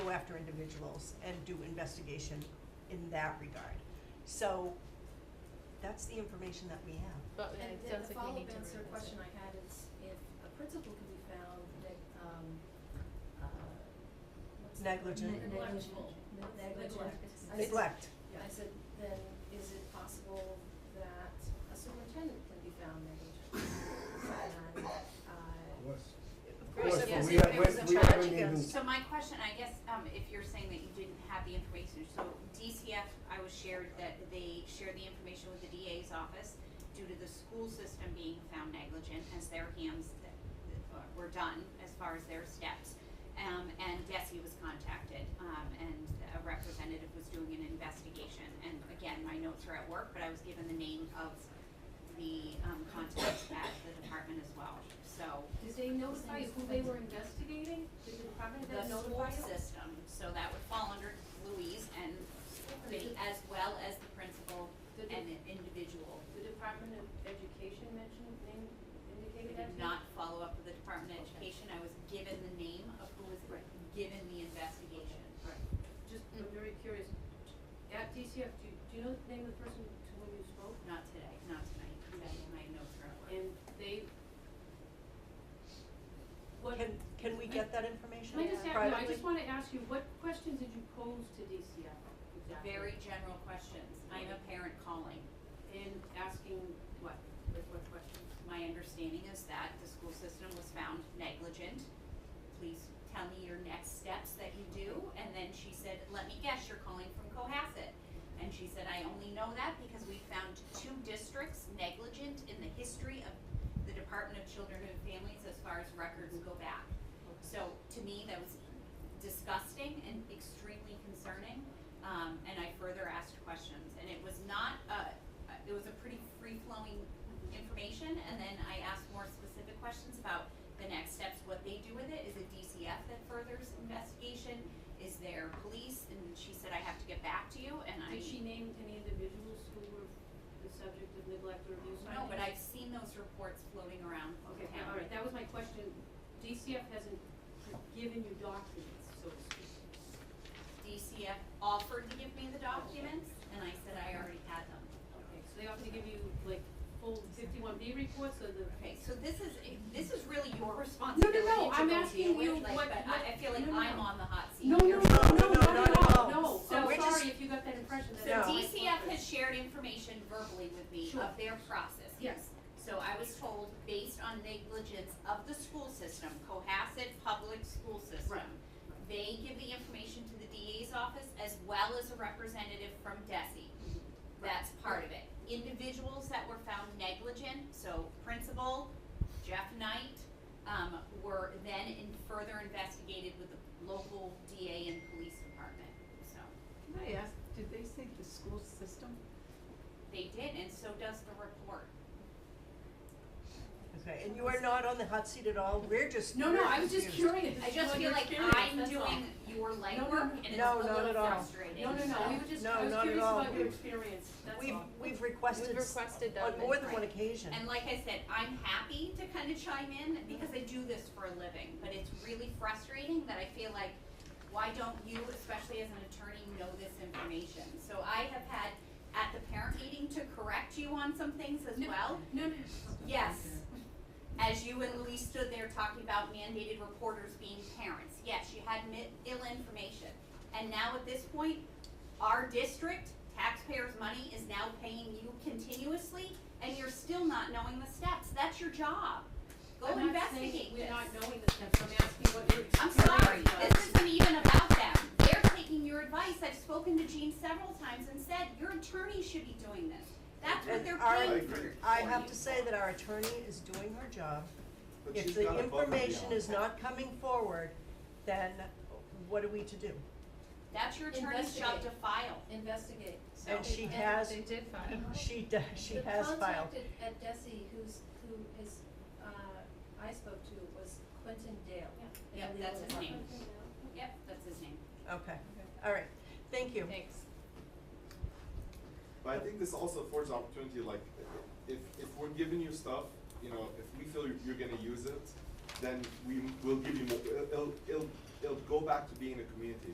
after individuals and do investigation in that regard. So that's the information that we have. But yeah, And it then sounds the like we follow-up need to answer revisit. question I had is if a principal can be found that, um, uh, what's the word? Negligent. Ne- Neglectful, Ne- negligent. I said- Neglect. I said, then is it possible that a superintendent can be found negligent? And, uh, Of course, course, but yes, we if have- it was we- a we charge haven't even- against. So my question, I guess, um, if you're saying that you didn't have the information, so DCF, I was shared that they share the information with the DA's office due to the school system being found negligent as their hands that that were done as far as their steps. Um, and Desi was contacted, um, and a representative was doing an investigation. And again, my notes are at work, but I was given the name of the, um, contact at the department as well, so. Did they notify who they were investigating? Did the department the head school notify you? system, so that would fall under Louise and me, as well as the principal The and de- an individual. the Department of Education mentioned, name, We indicated that? did to you? not follow up with the Department of Education, I was given the name of who was Right. given the investigation. Just, I'm very curious, at DCF, do, do you know the name of the person to whom you spoke? Not today, not tonight, that my notes are at work. And they, what, Can, can can we get that information I just, privately? ask- no, I just wanna ask you, what questions did you pose to DCF The exactly? very general questions, I'm a parent calling, And asking what, like what questions? my understanding is that the school system was found negligent. Please tell me your next steps that you do, and then she said, let me guess, you're calling from Cohasset. And she said, I only know that because we found two districts negligent in the history of the Department of Children and Families as far as records go back. So to me, that was disgusting and extremely concerning. Um, and I further asked questions, and it was not, uh, uh, it was a pretty free-flowing information, and then I asked more specific questions about the next steps, what they do with it, is it DCF that furthers investigation, is there police, and she said, I have to get back to you, and I. Did she name any individuals who were the subject of neglect or abuse? No, but I've seen those reports floating around the Okay, town. all right, that was my question, DCF hasn't given you documents, so to speak. DCF offered to give me the documents, and I said I already had them. Okay, so they offered to give you like full fifty-one B reports or the? Okay, so this is, eh, this is really your responsibility to no, go I'm deal asking you with, like, what- but I, I feel like no, no, I'm no. on the hot seat. No, no, no, You're- no, No, no, not no, at no, all, no. no, So I'm we're just- sorry if you got that impression, that's So No. not my DCF purpose. has shared information verbally with me Sure. of their process. Yes. So I was told, based on negligence of the school system, Cohasset Public School System, Right. they give the information to the DA's office as well as a representative from DESI. That's part of it. Individuals that were found negligent, so principal, Jeff Knight, um, were then in further investigated with the local DA and police department, so. Can I ask, did they say the school system? They did, and so does the report. Okay, and you are not on the hot seat at all, we're just, No, no, we're I was just confused. curious. I just what feel your like experience, I'm that's all. doing your No, no, legwork and it's a no, not at little all. frustrating. No, no, no, we were just, No, I was not at curious all. about your experience, that's all. We've, we've requested, We've s- requested on them. more than one Right. occasion. And like I said, I'm happy to kind of chime in because I do this for a living, but it's really frustrating that I feel like, why don't you, especially as an attorney, know this information? So I have had at the parent meeting to correct you on some things as No. well. No, no, Yes. As you and Louise stood there talking about mandated reporters being parents, yes, you had mi- ill information. And now at this point, our district, taxpayers' money is now paying you continuously, and you're still not knowing the steps. That's your job. Go I'm not saying investigate We're this. not knowing this, stuff. I'm asking what your I'm experience was. sorry, this isn't even about them. They're taking your advice. I've spoken to Jean several times and said, your attorney should be doing this. That's what And they're our- paying I for. agree. I for have you. to say that our attorney is doing her job. But If she's the gone above and information is beyond. not coming forward, then what are we to do? That's your attorney's job to Investigate. file, investigate. so. And she And has, They did file. she, d- she has The filed. contact at- at DESI who's, who is, uh, I spoke to was Quentin Dale. in Yeah, the that's legal his name. department. Yep, that's his name. Okay, all right, thank you. Thanks. But I think this also affords opportunity, like, if, if we're giving you stuff, you know, if we feel you're, you're gonna use it, then we will give you more, it'll, it'll, it'll go back to being a community.